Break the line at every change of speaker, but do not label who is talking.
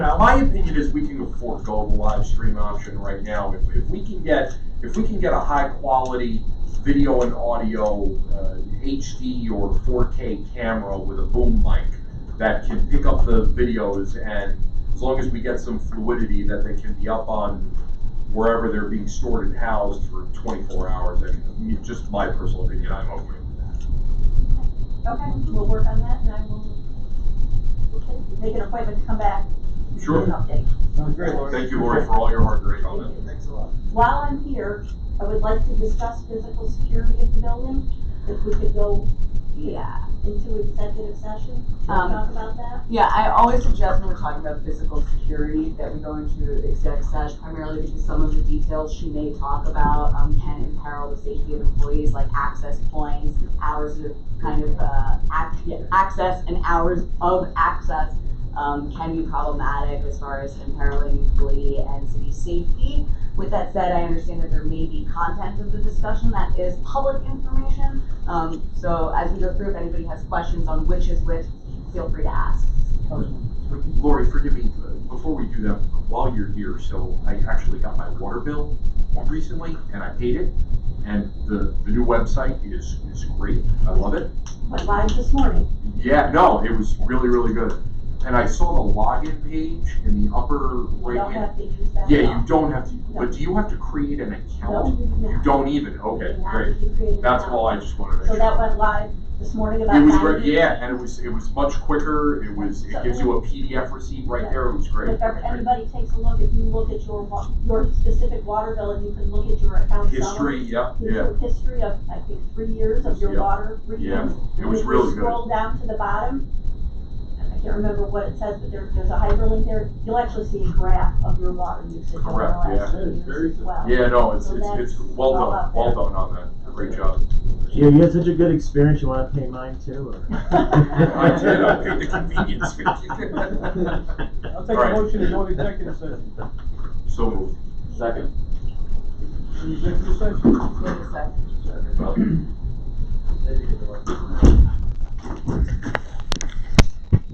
Now, my opinion is we can forego the live stream option right now. If, if we can get, if we can get a high quality video and audio, uh, HD or 4K camera with a boom mic that can pick up the videos and as long as we get some fluidity that they can be up on wherever they're being stored and housed for 24 hours, and me- just my personal opinion, I'm okay with that.
Okay, we'll work on that and I will okay, make an appointment to come back. and give
Sure.
An update.
Sounds great, Lori.
Thank you, Lori, for all your hard work on that.
Thanks a lot.
While I'm here, I would like to discuss physical security of the building. If we could go
Yeah,
into executive session, to
Um,
talk about that.
yeah, I always suggest when we're talking about physical security that we go into exec sesh primarily because some of the details she may talk about, um, can imperil the safety of employees, like access points, hours of kind of, uh, ac- yeah, access and hours of access, um, can be problematic as far as imperiling employee and city safety. With that said, I understand that there may be content of the discussion that is public information. Um, so as we go through, if anybody has questions on which is which, feel free to ask.
Lori, forgive me, uh, before we do that, while you're here, so I actually got my water bill recently, and I paid it, and the, the new website is, is great, I love it.
Went live this morning.
Yeah, no, it was really, really good. And I saw the login page in the upper
We
right
don't
hand.
have to use that.
Yeah, you don't have to,
No.
but do you have to create an
No,
account?
you do
You
not.
don't even, okay, great. That's all I just wanted to make
So
sure.
that went live this morning about
It
nine.
was great, yeah, and it was, it was much quicker, it was, it gives you a PDF receipt right there, it was great.
If ever- anybody takes a look, if you look at your, wa- your specific water bill and you can look at your account summary.
History, yep, yeah,
Gives you a history of, I think, three years of your
Yeah.
water
yeah,
readings.
it was really
If you
good.
scroll down to the bottom, I can't remember what it says, but there, there's a hyperlink there, you'll actually see a graph of your water usage over the
Correct,
last
yeah.
few
That is very
years as
good.
well.
Yeah, no, it's,
So
it's, it's
that's
well
all
done,
out
well
there.
done on that, great job.
Yeah, you had such a good experience, you wanna pay mine too, or?
I did, I paid the convenience fee.
I'll take a
Alright.
motion to go to executive session.
So moved.
Second.
Executive session.
Wait a sec.
Well,